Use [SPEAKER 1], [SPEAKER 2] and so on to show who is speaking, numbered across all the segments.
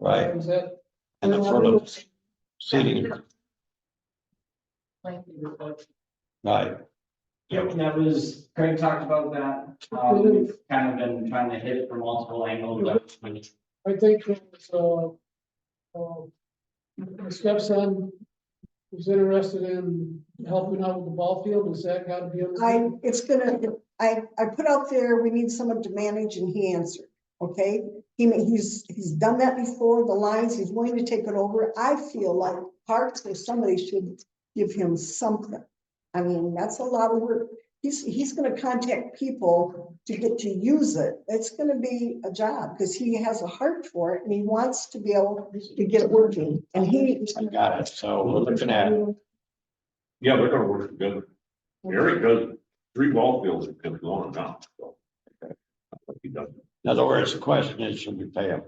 [SPEAKER 1] Right.
[SPEAKER 2] Is that?
[SPEAKER 1] and affirmative seating,
[SPEAKER 2] Thank you.
[SPEAKER 1] right?
[SPEAKER 3] Yeah, when that was, Craig talked about that, um,
[SPEAKER 4] Mm-hmm.
[SPEAKER 3] we've kind of been trying to hit it from multiple angles, but when
[SPEAKER 2] I think it was, uh, uh, my stepson was interested in helping out with the ball field. Is that got to be? on the-
[SPEAKER 5] I, it's gonna, I, I put out there, we need someone to manage and he answered, okay? He, ma- he's, he's done that before, the lines, he's willing to take it over. I feel like parks or somebody should give him something. I mean, that's a lot of work. He's, he's gonna contact people to get to use it. It's gonna be a job because he has a heart for it and he wants to be able to get it working and he.
[SPEAKER 1] I got it, so we're looking at,
[SPEAKER 6] Yeah, they're gonna work together.
[SPEAKER 5] Mhm.
[SPEAKER 6] Eric does three ball fields that comes on and on, so. He doesn't,
[SPEAKER 1] in other words, the question is, should we pay him?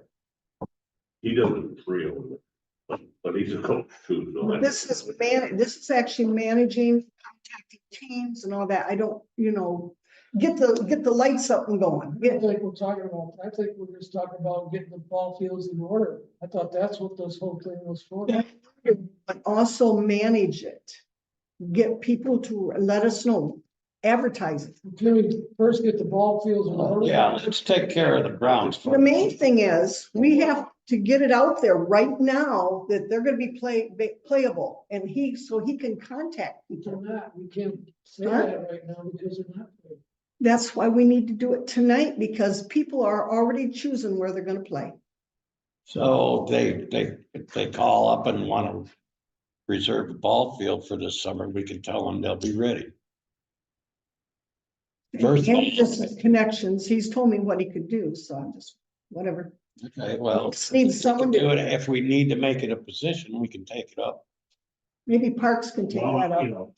[SPEAKER 6] he doesn't three of them, but, but he's a coach too, so. that's-
[SPEAKER 5] This is man, this is actually managing, contacting teams and all that. I don't, you know, get the, get the lights up and going.
[SPEAKER 2] I
[SPEAKER 5] Get-
[SPEAKER 2] think we're talking about, I think we're just talking about getting the ball fields in order. I thought that's what this whole thing was for.
[SPEAKER 5] Yeah. But also manage it. Get people to let us know, advertise it.
[SPEAKER 2] Can we first get the ball fields in order?
[SPEAKER 1] Yeah, let's take care of the grounds.
[SPEAKER 5] The
[SPEAKER 1] first.
[SPEAKER 5] main thing is, we have to get it out there right now that they're gonna be play, be playable and he, so he can contact
[SPEAKER 2] We
[SPEAKER 5] people.
[SPEAKER 2] cannot, we can't say that right now because they're not. there.
[SPEAKER 5] That's why we need to do it tonight because people are already choosing where they're gonna play.
[SPEAKER 1] So they, they, if they call up and want to reserve a ball field for this summer, we can tell them they'll be ready. First of all-
[SPEAKER 5] And just his connections, he's told me what he could do, so I'm just, whatever.
[SPEAKER 1] Okay, well,
[SPEAKER 5] Just Need
[SPEAKER 1] we can
[SPEAKER 5] someone
[SPEAKER 1] do
[SPEAKER 5] to,
[SPEAKER 1] it. if we need to make it a position, we can take it up.
[SPEAKER 5] maybe Parks can take that
[SPEAKER 6] Well, you
[SPEAKER 5] up.
[SPEAKER 6] know,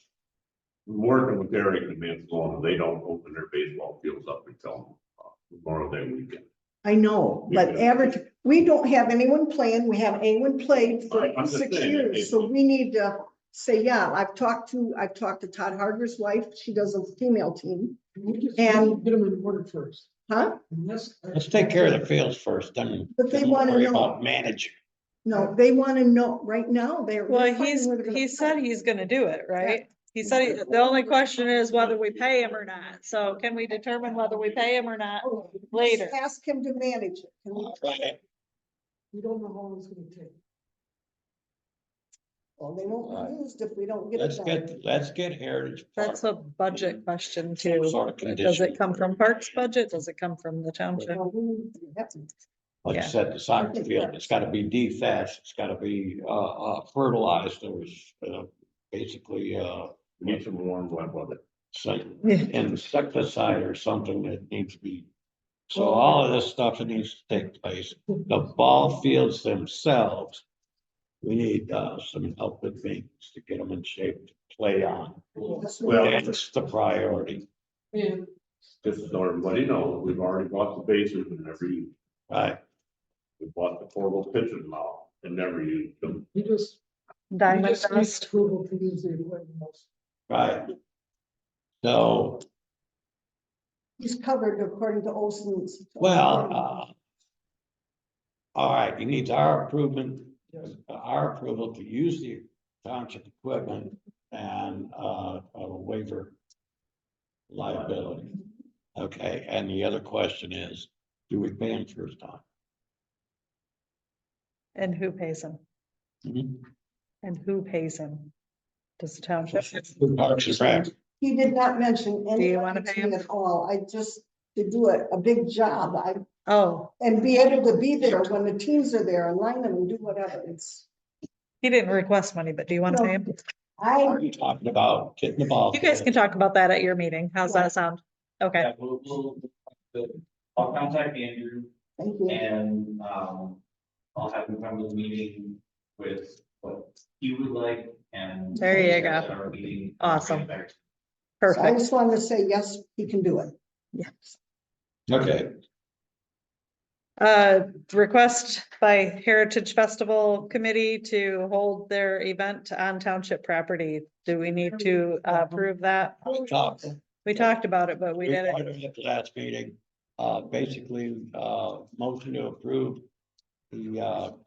[SPEAKER 6] Working with Eric and Manzona, they don't open their baseball fields up until uh, Memorial Day weekend.
[SPEAKER 5] I know, but
[SPEAKER 6] Yeah.
[SPEAKER 5] average, we don't have anyone playing, we haven't anyone played for
[SPEAKER 6] Right, I'm just
[SPEAKER 5] six
[SPEAKER 6] saying,
[SPEAKER 5] years,
[SPEAKER 6] it's-
[SPEAKER 5] so we need to say, yeah, I've talked to, I've talked to Todd Harger's wife, she does a female team,
[SPEAKER 2] We just get
[SPEAKER 5] And-
[SPEAKER 2] them in order first.
[SPEAKER 5] huh?
[SPEAKER 2] And that's-
[SPEAKER 1] Let's take care of the fields first, then.
[SPEAKER 5] But they
[SPEAKER 1] then we'll
[SPEAKER 5] wanna
[SPEAKER 1] worry
[SPEAKER 5] know.
[SPEAKER 1] About managing.
[SPEAKER 5] No, they want to know, right now, they're.
[SPEAKER 4] Well,
[SPEAKER 5] they're
[SPEAKER 4] he's,
[SPEAKER 5] fighting where they're gonna
[SPEAKER 4] he said
[SPEAKER 5] play.
[SPEAKER 4] he's gonna do it, right? He said, he- the only question is whether we pay him or not. So can we determine whether we pay him or not later?
[SPEAKER 5] Oh, Ask him to manage it. Can we-
[SPEAKER 1] Right.
[SPEAKER 2] We don't know how long it's gonna take.
[SPEAKER 5] Well, they won't be used if we don't get it
[SPEAKER 1] Let's
[SPEAKER 5] done.
[SPEAKER 1] get, let's get Heritage Park,
[SPEAKER 4] That's a budget
[SPEAKER 1] some
[SPEAKER 4] question too.
[SPEAKER 1] sort of
[SPEAKER 4] Does
[SPEAKER 1] condition.
[SPEAKER 4] it come from Parks budget? Does it come from the township?
[SPEAKER 5] Well, we need to have some-
[SPEAKER 1] Like I
[SPEAKER 4] Yeah.
[SPEAKER 1] said, the soccer field, it's gotta be defaced, it's gotta be, uh, uh, fertilized, there was, uh, basically, uh,
[SPEAKER 6] We Need some warm wet weather.
[SPEAKER 1] some
[SPEAKER 4] Yeah.
[SPEAKER 1] insecticide or something that needs to be. So all of this stuff that needs to take place, the ball fields themselves. We need, uh, some help with things to get them in shape to play on,
[SPEAKER 6] Well-
[SPEAKER 1] that's the priority,
[SPEAKER 2] And
[SPEAKER 6] Just so everybody knows, we've already bought the bases and never used. them.
[SPEAKER 1] right?
[SPEAKER 6] We bought the portable pitchers now and never used them.
[SPEAKER 2] he just. he
[SPEAKER 4] Diamond
[SPEAKER 2] just needs
[SPEAKER 4] dust.
[SPEAKER 2] Approval to use the equipment.
[SPEAKER 1] Right. So,
[SPEAKER 5] He's covered according to Olson's.
[SPEAKER 1] well, uh. All right, he needs our improvement, our approval to use the township equipment and, uh, a waiver. Liability. Okay, and the other question is, do we pay him first
[SPEAKER 4] And who pays him?
[SPEAKER 1] time?
[SPEAKER 4] And who pays him? Does the township?
[SPEAKER 1] Parks and Rec,
[SPEAKER 5] He did not mention any
[SPEAKER 4] wanna pay him?
[SPEAKER 5] at all. I just, to do a, a big job, I,
[SPEAKER 4] Oh,
[SPEAKER 5] and be able to be there when the teams are there and line them and do whatever. It's,
[SPEAKER 4] he didn't request money, but do you want to pay him?
[SPEAKER 5] I,
[SPEAKER 1] are you talking about getting the ball?
[SPEAKER 4] You guys can talk about that at your meeting. How's that sound? Okay,
[SPEAKER 3] Yeah, we'll, we'll, we'll- I'll contact Andrew
[SPEAKER 5] thank you.
[SPEAKER 3] and, um, I'll have him come to the meeting with what he would like and.
[SPEAKER 4] There you go.
[SPEAKER 3] At our meeting.
[SPEAKER 4] Awesome.
[SPEAKER 3] Back to
[SPEAKER 5] So I
[SPEAKER 4] perfect.
[SPEAKER 5] just wanted to say, yes, he can do it.
[SPEAKER 1] Okay,
[SPEAKER 4] Uh, request by Heritage Festival Committee to hold their event on township property. Do we need to uh, approve that?
[SPEAKER 1] we talked.
[SPEAKER 4] We talked about it, but we
[SPEAKER 1] Required
[SPEAKER 4] didn't.
[SPEAKER 1] at the Last meeting, uh, basically, uh, motion to approve the, uh,